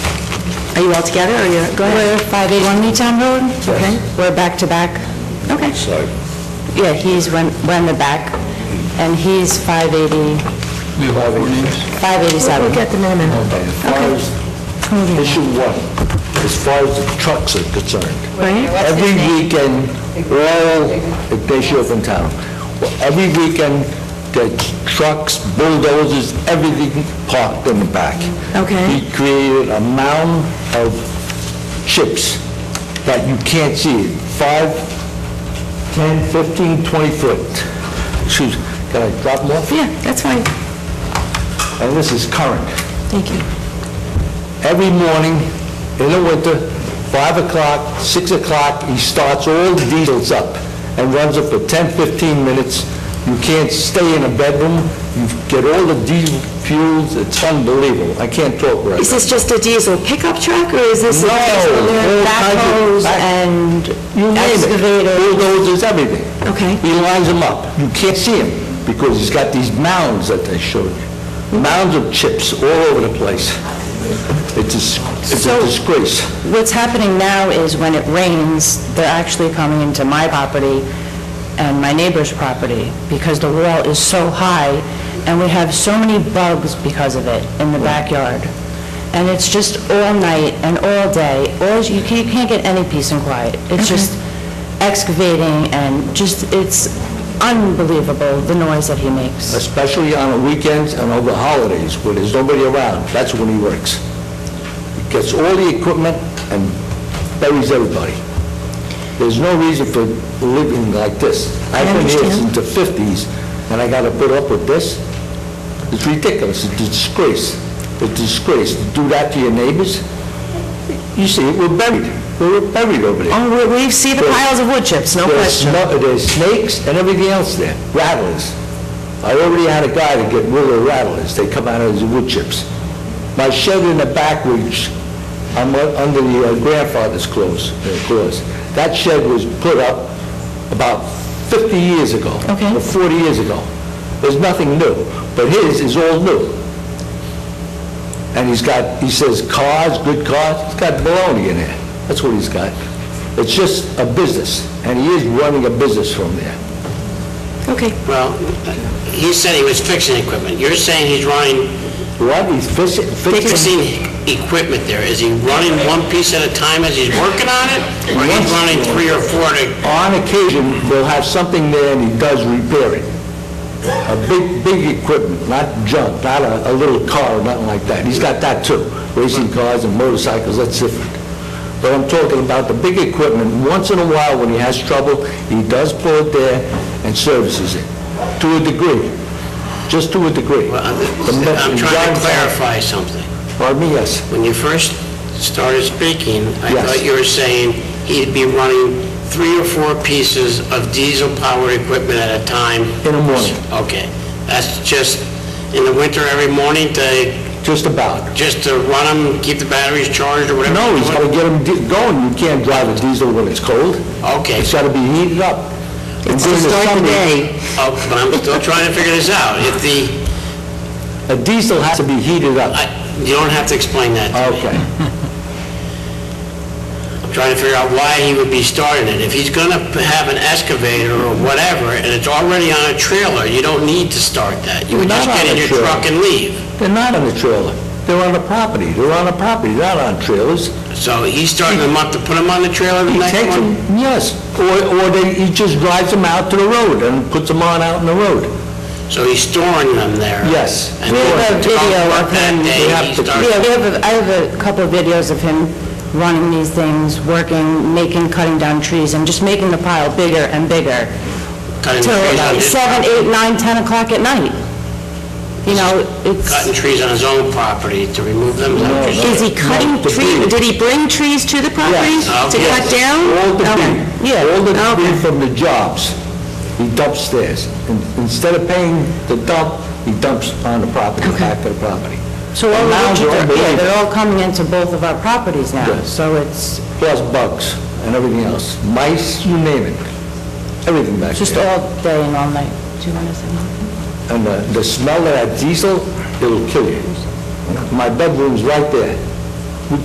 Are you all together, or you're, go ahead? We're 581 Newtown Road. Okay. We're back to back. Okay. side. Yeah, he's run run the back, and he's 580, We have all four names? 587. We'll get them in a minute. As far as issue one, as far as the trucks are concerned, Right? every weekend, Laurel, Ignacio from town, Well, every weekend, the trucks, bulldozers, everything parked in the back. Okay. He created a mound of chips that you can't see, five, 10, 15, 20 foot. Excuse, can I drop them off? Yeah, that's fine. And this is current. Thank you. every morning in the winter, 5 o'clock, 6 o'clock, he starts all the diesels up and runs it for 10, 15 minutes. You can't stay in a bedroom, you get all the diesel fuels, it's unbelievable. I can't talk right Is now. this just a diesel pickup truck, or is this a... No, all kinds of- Backhoes back- and You name it. excavators. Bulldozers, everything. Okay. He lines them up. You can't see him because he's got these mounds that I showed you. Mounds of chips all over the place. It's a s- it's a So- disgrace. What's happening now is when it rains, they're actually coming into my property and my neighbor's property because the wall is so high and we have so many bugs because of it in the backyard. And it's just all night and all day, all, you can't you can't get any peace and quiet. It's just excavating and just, it's unbelievable, the noise that he makes. especially on the weekends and over holidays where there's nobody around, that's when he works. He Gets all the equipment and buries everybody. There's no reason for living like this. I've been here understand. since the 50s, and I gotta put up with this? It's ridiculous, it's a disgrace, It's a disgrace to do that to your neighbors. You see, we're buried, we're buried over there. Oh, we- we see the piles of wood chips, no There's question. sno- There's snakes and everything else there, rattlers. I already had a guy to get rid of rattlers, they come out of his wood chips. My shed in the back, which I'm u- under the uh, grandfather's clause, uh, clause, that shed was put up about 50 years ago. Okay. Or 40 years ago. There's nothing new, but his is all new. And he's got, he says cars, good cars, he's got baloney in there. That's what he's got. It's just a business, and he is running a business from there. Okay. Well, he said he was fixing equipment. You're saying he's running, What, he's fixing, fixing? fixing equipment there. Is he running one piece at a time as he's working on it? Or he's Yes. running three or four to, On occasion, they'll have something there and he does repair it. A big, big equipment, not junk, not a, a little car or nothing like that. He's got that too, racing cars and motorcycles, that's different. But I'm talking about the big equipment, once in a while when he has trouble, he does pull it there and services it, to a degree, just to a degree. Well, The I'm me- I'm trying John- to clarify something. Pardon me, yes. When you first started speaking, I Yes. thought you were saying he'd be running three or four pieces of diesel-powered equipment at a time. In the morning. Okay. That's just in the winter every morning to, Just about. just to run them, keep the batteries charged or whatever? No, you're he's doing? gotta get him di- going, you can't drive a diesel when it's cold. Okay. It's gotta be heated up. And It's to during the start the summer, day. Oh, but I'm still trying to figure this out. If the, A diesel has to be heated up. I, you don't have to explain that to me. Okay. I'm trying to figure out why he would be starting it. If he's gonna have an excavator or whatever, and it's already on a trailer, you don't need to start that. You would Not just on get in a your trailer. truck and leave. They're not on the trailer. They're on the property. They're on the property, not on trailers. So he's starting them up to put them on the trailer the He next takes them, one? yes, or, or they, he just drives them out to the road and puts them on out in the road. So he's storing them there? Yes. And We have then a to go video work of that him. day, We have he to- starts- Yeah, we have, a- I have a couple of videos of him running these things, working, making, cutting down trees, and just making the pile bigger and bigger, cutting till trees on about his- seven, eight, nine, 10 o'clock at night. You know, Cutting it's, trees on his own property to remove them? Is that what you're saying? Is he cutting No, debris. trees? Did he bring trees to the property Yes. to Okay. cut down? All the Okay. debris, Yeah, all the okay. debris from the jobs, he dumps theirs. In- Instead of paying the dump, he dumps on the property, back to the property. so all And the now wood they're chips are- yeah, unbelievable. they're all coming into both of our properties now, Yes. so it's Plus bugs and everything else. Mice, you name it. Everything back there. uh, just all day and all night. Do you want to say something? and the the smell of that diesel, it'll kill you. My bedroom's right there.